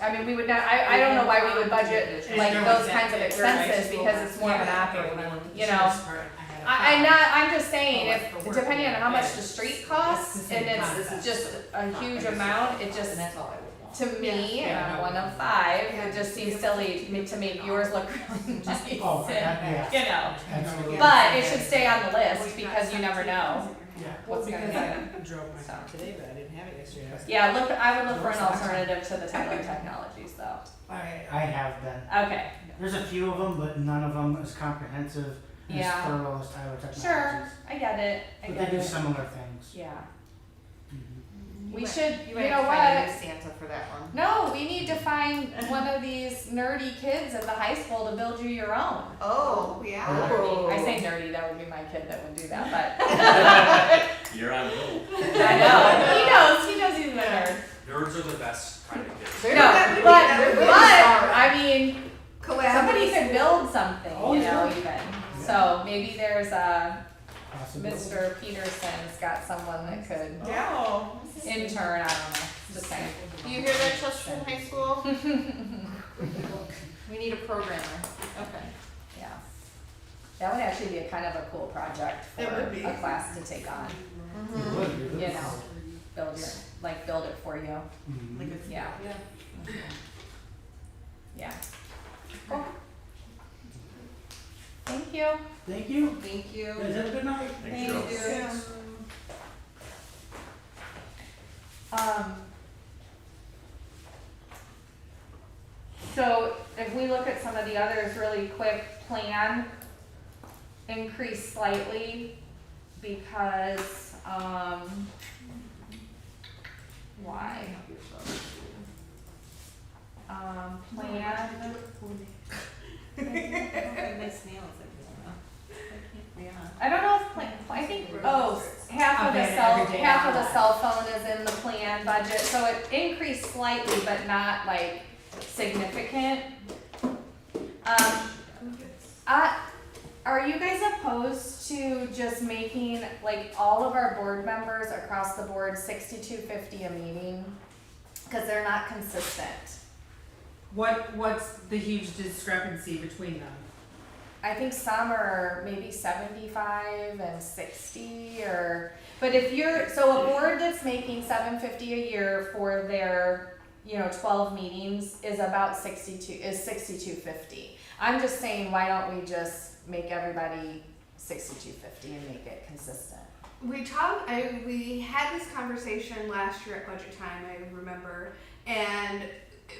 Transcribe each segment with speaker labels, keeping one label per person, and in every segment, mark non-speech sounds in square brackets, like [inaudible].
Speaker 1: I mean, we would not, I, I don't know why we would budget
Speaker 2: There's
Speaker 1: like
Speaker 2: no
Speaker 1: those
Speaker 2: exact
Speaker 1: kinds of
Speaker 2: figure, right?
Speaker 1: expenses, because it's more of an
Speaker 2: Yeah,
Speaker 1: operating,
Speaker 2: everyone with
Speaker 1: you
Speaker 2: the
Speaker 1: know?
Speaker 2: insurance part, had a
Speaker 1: I, I'm
Speaker 2: problem.
Speaker 1: not, I'm just saying,
Speaker 2: For
Speaker 1: if,
Speaker 2: work,
Speaker 1: depending on how much the
Speaker 2: it's-
Speaker 1: street
Speaker 2: it's
Speaker 1: costs,
Speaker 2: the
Speaker 1: and
Speaker 2: same
Speaker 1: it's, it's
Speaker 2: concept.
Speaker 1: just a huge amount, it just,
Speaker 2: And that's all I would want.
Speaker 1: to me,
Speaker 2: Yeah.
Speaker 1: and I'm
Speaker 2: Yeah.
Speaker 1: one of five, it just seems silly to me to make yours look [laughs] really nice,
Speaker 3: Oh, that-
Speaker 1: and, you know.
Speaker 3: Absolutely.
Speaker 1: But it should stay on the list, because you never know
Speaker 3: Yeah.
Speaker 2: Well,
Speaker 1: what's gonna
Speaker 2: because
Speaker 1: happen.
Speaker 2: I [laughs] drove my car
Speaker 1: So.
Speaker 2: today, but I didn't have it yesterday. I was-
Speaker 1: Yeah, look, I would look for an alternative to the Tyler Technologies though.
Speaker 3: I, I have been.
Speaker 1: Okay,
Speaker 3: There's a few of them, but none of them as comprehensive and as
Speaker 1: Yeah.
Speaker 3: thorough as Tyler Technologies.
Speaker 1: sure, I get it, I
Speaker 3: But
Speaker 1: get
Speaker 3: they do
Speaker 1: it.
Speaker 3: similar things.
Speaker 1: Yeah,
Speaker 3: Mhm.
Speaker 1: we should, you
Speaker 4: You might
Speaker 1: know
Speaker 4: have to find a
Speaker 1: what?
Speaker 4: new Santa for that one.
Speaker 1: No, we need to find one of these nerdy kids at the high school to build you your own.
Speaker 4: Oh, yeah.
Speaker 1: Nerdy. I
Speaker 4: Oh.
Speaker 1: say nerdy, that would be my kid that would do that, but [laughs]
Speaker 5: You're on hold.
Speaker 1: I know, he knows, he knows he's a nerd.
Speaker 6: Nerds are the best kind of kids.
Speaker 4: They're
Speaker 1: No,
Speaker 4: not-
Speaker 1: but, but,
Speaker 4: they're really smart.
Speaker 1: I mean, somebody
Speaker 4: Collaborative.
Speaker 1: could build something,
Speaker 3: Oh,
Speaker 1: you know,
Speaker 3: yeah.
Speaker 1: even. So maybe there's a,
Speaker 3: Possibly.
Speaker 1: Mr. Peterson's got someone that could
Speaker 4: No.
Speaker 1: intern, I don't know, just saying.
Speaker 4: Do you hear that, Chesterton High School?
Speaker 1: [laughs]
Speaker 4: We need a programmer. Okay.
Speaker 1: Yeah. That would actually be a kind of a cool project for
Speaker 4: It would be.
Speaker 1: a class to take on,
Speaker 3: It
Speaker 4: Mm-hmm.
Speaker 3: would, it would.
Speaker 1: you know, build your, like, build it for you,
Speaker 3: Mhm.
Speaker 4: Like a-
Speaker 1: yeah.
Speaker 2: Yeah.
Speaker 1: Yeah. Cool. Thank you.
Speaker 3: Thank you.
Speaker 4: Thank you.
Speaker 3: Guys, have a good night.
Speaker 5: Thanks, Joe.
Speaker 1: Um. So if we look at some of the others really quick, plan increased slightly because, um, why? Um, plan, [laughs]
Speaker 2: Nice nails, I guess. Yeah.
Speaker 1: I don't know if plan, I think, oh, half of the
Speaker 2: Updated
Speaker 1: cell,
Speaker 2: every day
Speaker 1: half of
Speaker 2: on
Speaker 1: the
Speaker 2: that.
Speaker 1: cell phone is in the plan budget, so it increased slightly, but not like significant. Um, I, are you guys opposed to just making like all of our board members across the board sixty-two fifty a meeting? Cause they're not consistent.
Speaker 2: What, what's the huge discrepancy between them?
Speaker 1: I think some are maybe seventy-five and sixty or, but if you're, so a board that's making seven fifty a year for their, you know, twelve meetings is about sixty-two, is sixty-two fifty. I'm just saying, why don't we just make everybody sixty-two fifty and make it consistent?
Speaker 7: we talked I, we had this conversation last year at budget time i remember and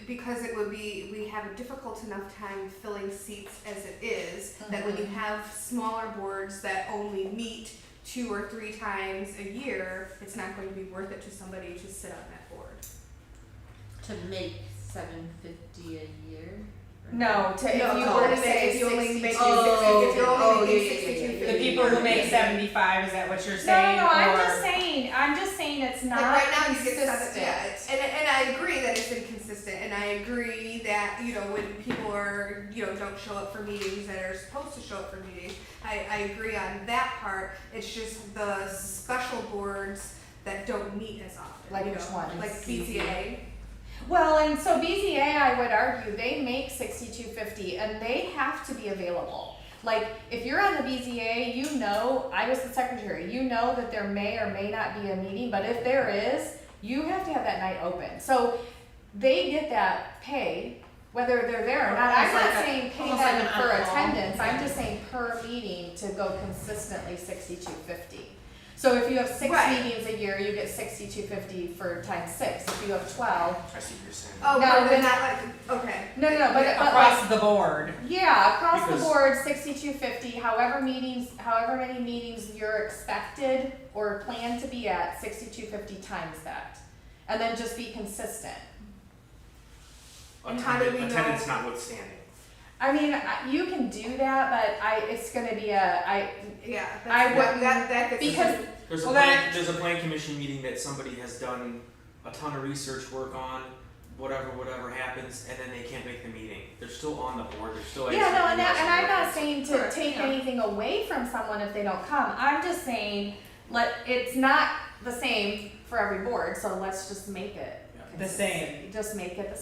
Speaker 7: because it would be we have a difficult enough time filling seats as it is, that when you have smaller boards that only meet two or three times a year it's not going to be worth it to somebody to sit on that board
Speaker 8: To make seven fifty a year?
Speaker 1: No, to, if you
Speaker 7: No,
Speaker 1: were
Speaker 7: no,
Speaker 1: to
Speaker 7: if
Speaker 1: say,
Speaker 7: you only make
Speaker 4: Oh,
Speaker 7: if you're
Speaker 4: oh,
Speaker 7: only
Speaker 4: yeah,
Speaker 7: making
Speaker 4: yeah, yeah, yeah, yeah.
Speaker 7: sixty-two
Speaker 2: The people who make seventy-five, is that what you're
Speaker 1: No, no,
Speaker 2: saying?
Speaker 1: no, I'm
Speaker 2: or-
Speaker 1: just saying, I'm just saying it's
Speaker 7: Like
Speaker 1: not
Speaker 7: right now, you get seven, yeah,
Speaker 1: consistent.
Speaker 7: and, and I agree that it's inconsistent, and I agree that, you know, when people are, you know, don't show up for meetings that are supposed to show up for meetings, I, I agree on that part, it's just the special boards that don't meet as often,
Speaker 1: Like
Speaker 7: you
Speaker 1: which
Speaker 7: know,
Speaker 1: ones?
Speaker 7: Like BZA,
Speaker 1: Well, and so BZA, I would argue, they make sixty-two fifty, and they have to be available. Like, if you're on the BZA, you know, I was the secretary, you know that there may or may not be a meeting, but if there is, you have to have that night open. So they get that pay, whether they're there or not. I'm
Speaker 8: Almost like
Speaker 1: not
Speaker 8: a-
Speaker 1: saying pay
Speaker 8: almost like
Speaker 1: them
Speaker 8: an
Speaker 1: for
Speaker 8: on-call.
Speaker 1: attendance, I'm just saying per meeting to go consistently sixty-two fifty. So if you have six
Speaker 7: Right.
Speaker 1: meetings a year, you get sixty-two fifty for times six. If you have twelve,
Speaker 6: I see what you're saying.
Speaker 7: oh,
Speaker 1: No,
Speaker 7: no,
Speaker 1: when-
Speaker 7: they're not like, okay.
Speaker 1: no, no, no, but, but like,
Speaker 2: Across the board.
Speaker 1: yeah, across the
Speaker 6: Because-
Speaker 1: board, sixty-two fifty, however meetings, however many meetings you're expected or plan to be at, sixty-two fifty times that. And then just be consistent.
Speaker 7: And how do we know-
Speaker 6: Attendance notwithstanding.
Speaker 1: I mean, I- you can do that, but I, it's gonna be a, I,
Speaker 7: Yeah,
Speaker 1: I
Speaker 7: that's, that,
Speaker 1: wouldn't-
Speaker 7: that, that gets.
Speaker 1: because,
Speaker 6: There's a
Speaker 2: Well,
Speaker 6: plan,
Speaker 2: that-
Speaker 6: there's a plan commission meeting that somebody has done a ton of research work on, whatever, whatever happens, and then they can't make the meeting. They're still on the board, they're still.
Speaker 1: yeah, no, and that, and I'm not
Speaker 6: executing.
Speaker 1: saying to
Speaker 7: Correct,
Speaker 1: take
Speaker 7: yeah.
Speaker 1: anything away from someone if they don't come, I'm just saying, let, it's not the same for every board, so let's just make it.
Speaker 6: Yeah.
Speaker 2: The same.
Speaker 1: Just make it the